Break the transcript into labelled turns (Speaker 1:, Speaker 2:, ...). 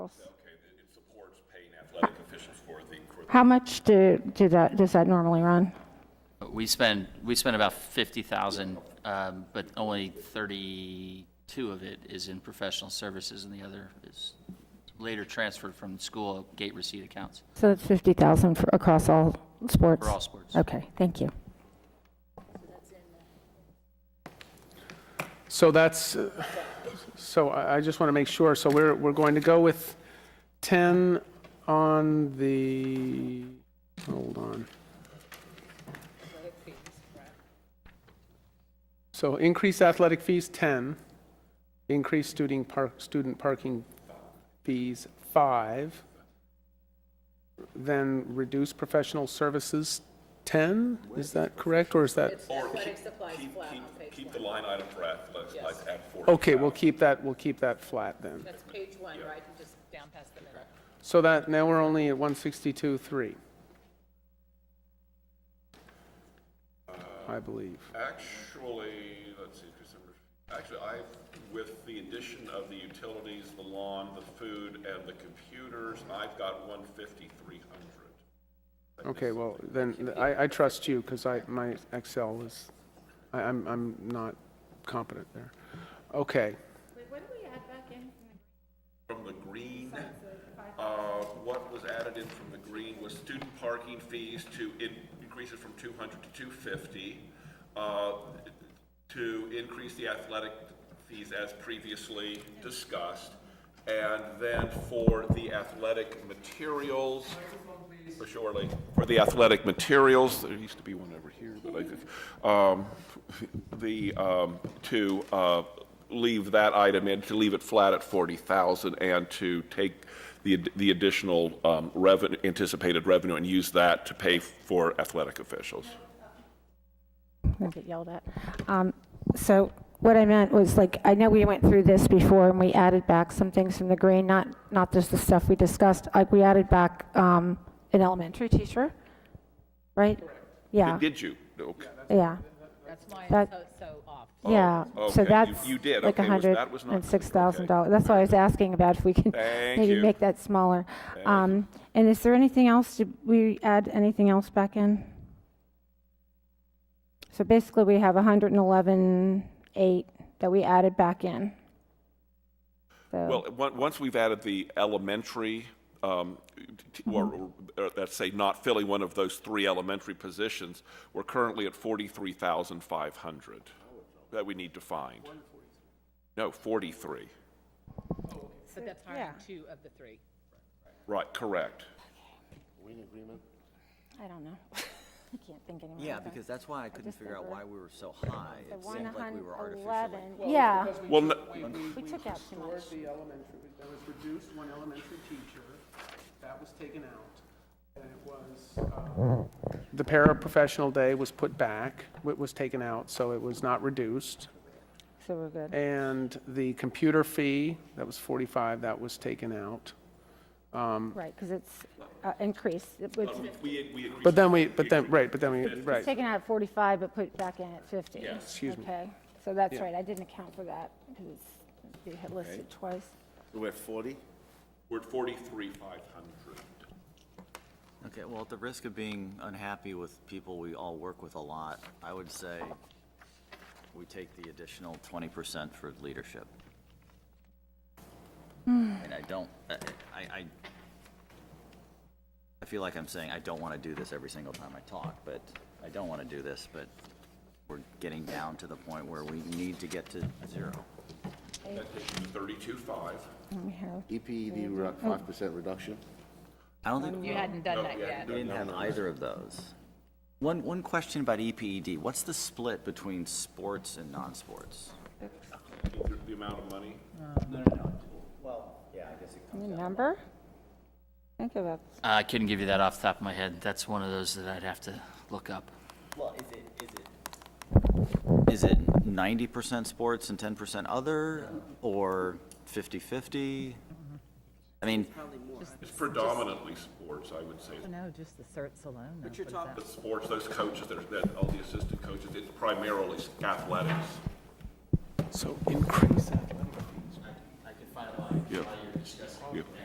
Speaker 1: Okay, it- it supports paying athletic officials for the, for the,
Speaker 2: How much do, do that, does that normally run?
Speaker 3: We spend, we spend about 50,000, um, but only 32 of it is in professional services, and the other is later transferred from school gate receipt accounts
Speaker 2: So that's 50,000 for, across all sports?
Speaker 3: for all sports.
Speaker 2: Okay, thank you.
Speaker 4: So that's, uh, so I I just want to make sure, so we're, we're going to go with 10 on the, hold on. So increase athletic fees, 10. Increase student park, student parking fees, 5. Then reduce professional services, 10? Is that correct, or is that?
Speaker 1: keep, keep, keep the line item for athletics at 40.
Speaker 4: Okay, we'll keep that, we'll keep that flat then.
Speaker 5: That's page one, right, and just down past the middle.
Speaker 4: So that, now we're only at 162.3. I believe.
Speaker 1: Actually, let's see, December, actually, I, with the addition of the utilities, the lawn, the food, and the computers, I've got 150, 300.
Speaker 4: Okay, well, then, I, I trust you, because I, my Excel is, I, I'm, I'm not competent there. Okay,
Speaker 1: From the green, uh, what was added in from the green was student parking fees to in- increase it from 200 to 250, uh, to increase the athletic fees as previously discussed, and then for the athletic materials. For surely, for the athletic materials, there used to be one over here, but I think, um, the, um, to, uh, leave that item in, to leave it flat at forty thousand and to take the, ad- the additional, um, revenue, anticipated revenue and use that to pay for athletic officials.
Speaker 2: I'll get yelled at. Um, So what I meant was, like, I know we went through this before, and we added back some things from the green, not, not just the stuff we discussed, like, we added back um, an elementary teacher, right? Yeah,
Speaker 1: Did you? Okay.
Speaker 2: yeah,
Speaker 5: That's why
Speaker 2: That-
Speaker 5: it's so- so off.
Speaker 2: yeah.
Speaker 1: Oh, okay,
Speaker 2: So
Speaker 1: you-
Speaker 2: that's
Speaker 1: you did.
Speaker 2: like
Speaker 1: Okay, was- that was not-
Speaker 2: $106,000. That's why I was asking about if we can
Speaker 1: Thank
Speaker 2: maybe
Speaker 1: you.
Speaker 2: make that smaller. Um, And is there anything else, did we add anything else back in? So basically, we have 111.8 that we added back in. So,
Speaker 1: Well, on- once we've added the elementary, um, t- or, or let's say not filling one of those three elementary positions, we're currently at 43,500 that we need to find. No, 43.
Speaker 5: So that's hiring two of the three.
Speaker 1: Right, correct.
Speaker 2: I don't know. I can't think anymore.
Speaker 6: Yeah, because that's why I couldn't
Speaker 2: just
Speaker 6: figure out
Speaker 2: remember-
Speaker 6: why we were so high. It seemed like we were artificially.
Speaker 2: 111, yeah,
Speaker 1: Well, n-
Speaker 2: we took out too much.
Speaker 4: the elementary, there was reduced one elementary teacher, that was taken out, and it was. uh, The paraprofessional day was put back, wa- was taken out, so it was not reduced.
Speaker 2: So we're good.
Speaker 4: And the computer fee, that was 45, that was taken out.
Speaker 2: Right, because it's uh, increased. It was
Speaker 1: we, we increased
Speaker 4: But then we, but then, right, but then we, right.
Speaker 2: taken out at 45, but put back in at 50.
Speaker 4: Excuse me.
Speaker 2: Okay, so that's right, I didn't account for that, because it's it listed twice.
Speaker 7: We're at 40?
Speaker 1: We're at 43,500.
Speaker 6: Okay, well, at the risk of being unhappy with people we all work with a lot, I would say we take the additional twenty percent for leadership. And I don't, I, I, I- I feel like I'm saying I don't want to do this every single time I talk, but I don't want to do this, but we're getting down to the point where we need to get to zero.
Speaker 1: That takes you to 32,500.
Speaker 2: And we have-
Speaker 7: EPED, we're at 5% reduction?
Speaker 6: I don't think.
Speaker 5: You hadn't done that yet.
Speaker 6: We didn't have either of those. One, one question about E EPED, what's the split between sports and non-sports?
Speaker 1: The- The amount of money?
Speaker 2: Any number? Think about,
Speaker 3: Uh, I couldn't give you that off the top of my head. That's one of those that I'd have to look up.
Speaker 6: Well, is it, is it? Is it ninety percent sports and ten percent other, or fifty-fifty? I mean,
Speaker 1: It's predominantly sports, I would say.
Speaker 5: No, just the certs alone. But
Speaker 6: you're talking-
Speaker 1: The sports, those coaches, that are- that, all the assistant coaches, it's primarily athletics.
Speaker 4: So increase athletic
Speaker 1: Yeah. Yeah.